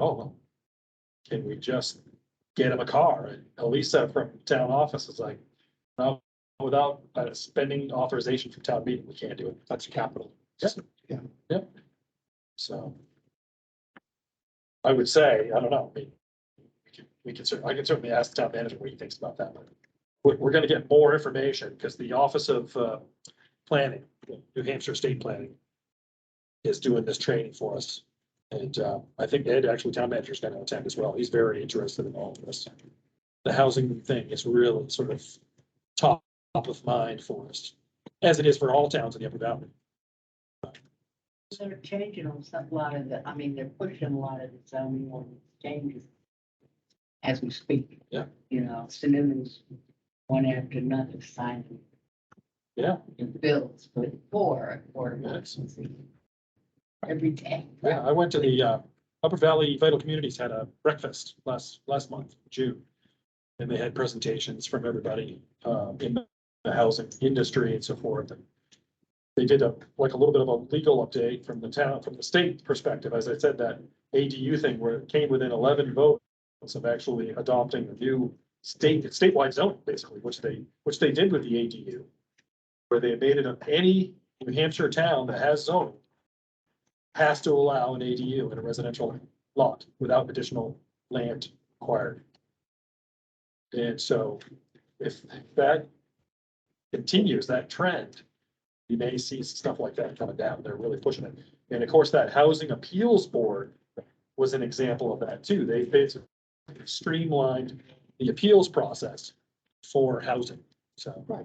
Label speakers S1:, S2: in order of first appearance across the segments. S1: Oh, well. Can we just get him a car? And Elisa from town office is like, no, without uh, spending authorization from town meeting, we can't do it. That's capital.
S2: Yep, yeah.
S1: Yep. So. I would say, I don't know, I mean, we can, we can certainly, I can certainly ask the town manager what he thinks about that. but We're, we're gonna get more information because the Office of, uh, Planning, New Hampshire State Planning is doing this training for us. And uh, I think Ed, actually town manager, is going to attend as well. He's very interested in all of this. The housing thing is really sort of top, top of mind for us, as it is for all towns in the Upper Valley.
S3: They're changing on some, lot of the, I mean, they're pushing a lot of the zoning ordinance changes as we speak.
S1: Yeah.
S3: You know, synonyms, one after another, signing
S1: Yeah,
S3: the bills with four or emergency. Every day.
S1: yeah. I went to the uh, Upper Valley Vital Communities had a breakfast last, last month, June. And they had presentations from everybody uh, in the housing industry and so forth. And They did a, like a little bit of a legal update from the town, from the state perspective. As I said, that ADU thing where it came within eleven votes of actually adopting the new state, statewide zone, basically, which they, which they did with the ADU. Where they made it up, any New Hampshire town that has zoning has to allow an ADU in a residential lot without additional land acquired. And so if that continues, that trend, you may see stuff like that coming down. They're really pushing it. And of course, that Housing Appeals Board was an example of that too. They basically streamlined the appeals process for housing, so.
S2: Right.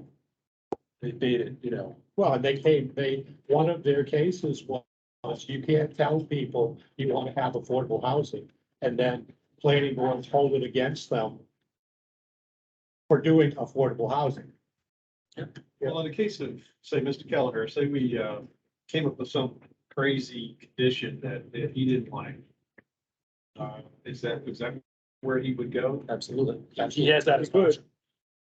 S1: They made it, you know,
S2: Well, and they came, they, one of their cases was, you can't tell people you want to have affordable housing. And then planning boards hold it against them for doing affordable housing.
S4: Well, in the case of, say, Mr. Kelleher, say we uh, came up with some crazy condition that that he didn't like. uh, Is that, is that where he would go?
S1: absolutely. He has that as an option.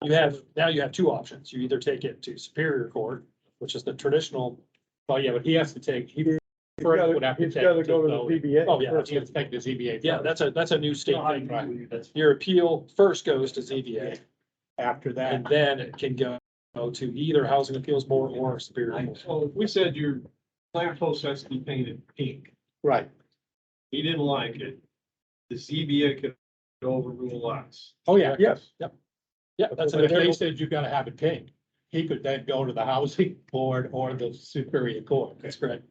S1: You have, now you have two options. You either take it to Superior Court, which is the traditional,
S2: Well, yeah, but he has to take, he
S5: gotta-
S2: first would have to
S5: It's
S2: take.
S5: gotta
S2: to
S5: go to the
S2: zoning.
S5: PBA.
S1: oh, yeah,
S2: First, he has to take the ZBA.
S1: yeah,
S2: first.
S1: that's a, that's a new state thing.
S4: That's
S1: Your appeal first goes to ZBA.
S2: After that,
S1: And then it can go go to either Housing Appeals Board or Superior. Court.
S4: Well, if we said your lamppost has to be painted pink.
S2: right.
S4: He didn't like it. The ZBA could overrule us.
S2: Oh, yeah.
S5: Yes,
S1: Yeah, that's
S2: But
S1: an
S2: if they
S1: available,
S2: said you gotta have it pink, he could then go to the housing board or the superior court.
S1: that's correct.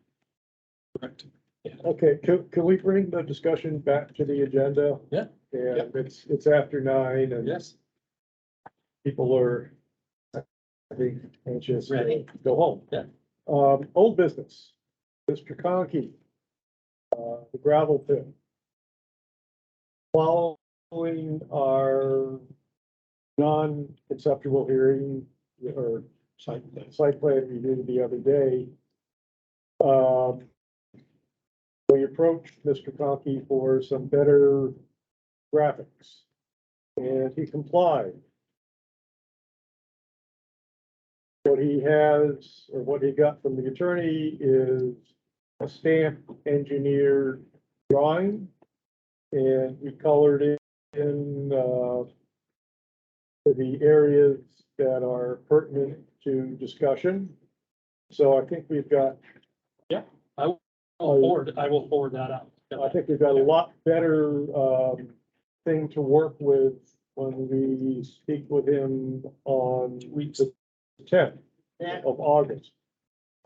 S1: Correct.
S5: okay, can, can we bring the discussion back to the agenda?
S1: Yeah.
S5: And it's, it's after nine and
S1: Yes,
S5: people are, I think, anxious to
S1: Ready.
S5: go home.
S1: Yeah.
S5: Um, old business, Mr. Conkey, uh, the gravel pit. Following our non-conceptual hearing or
S2: Site plan.
S5: site plan review the other day. Um, We approached Mr. Conkey for some better graphics, and he complied. What he has, or what he got from the attorney is a stamp engineered drawing, and we colored it in, uh, to the areas that are pertinent to discussion. So I think we've got,
S1: I'll forward, I will forward that out.
S5: I think we've got a lot better, um, thing to work with when we speak with him on week the tenth
S3: That-
S5: of August.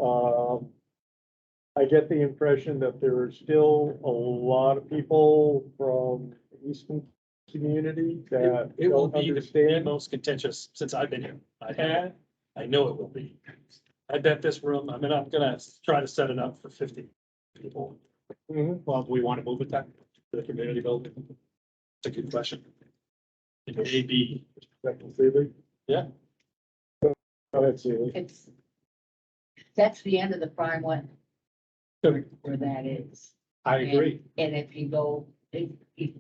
S5: Um, I get the impression that there are still a lot of people from the Eastern community
S2: uh,
S5: that
S1: It will be
S5: don't
S1: the- the
S5: understand.
S1: most contentious since I've been here. I have,
S5: And
S1: I know it will be. I bet this room, I mean, I'm gonna try to set it up for fifty people.
S5: Mhm.
S2: Well, do we want to move it then to the community building?
S1: It's a good question. It may be,
S5: Second, Seeley?
S1: Yeah.
S5: Go ahead, Seeley.
S3: It's, that's the end of the prime one. Where where that is.
S2: I agree.
S3: And if you go, if, if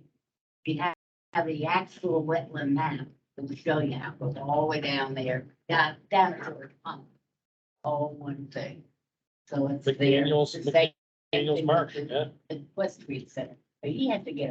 S3: you have, have the actual wetland map, it will show you how, it goes all the way down there, down, down toward pump. All one thing. So it's there.
S1: McDaniel's-
S3: The same thing
S1: Daniel's
S3: with
S1: Mark,
S3: the-
S1: yeah.
S3: The West Street Center, He has to get a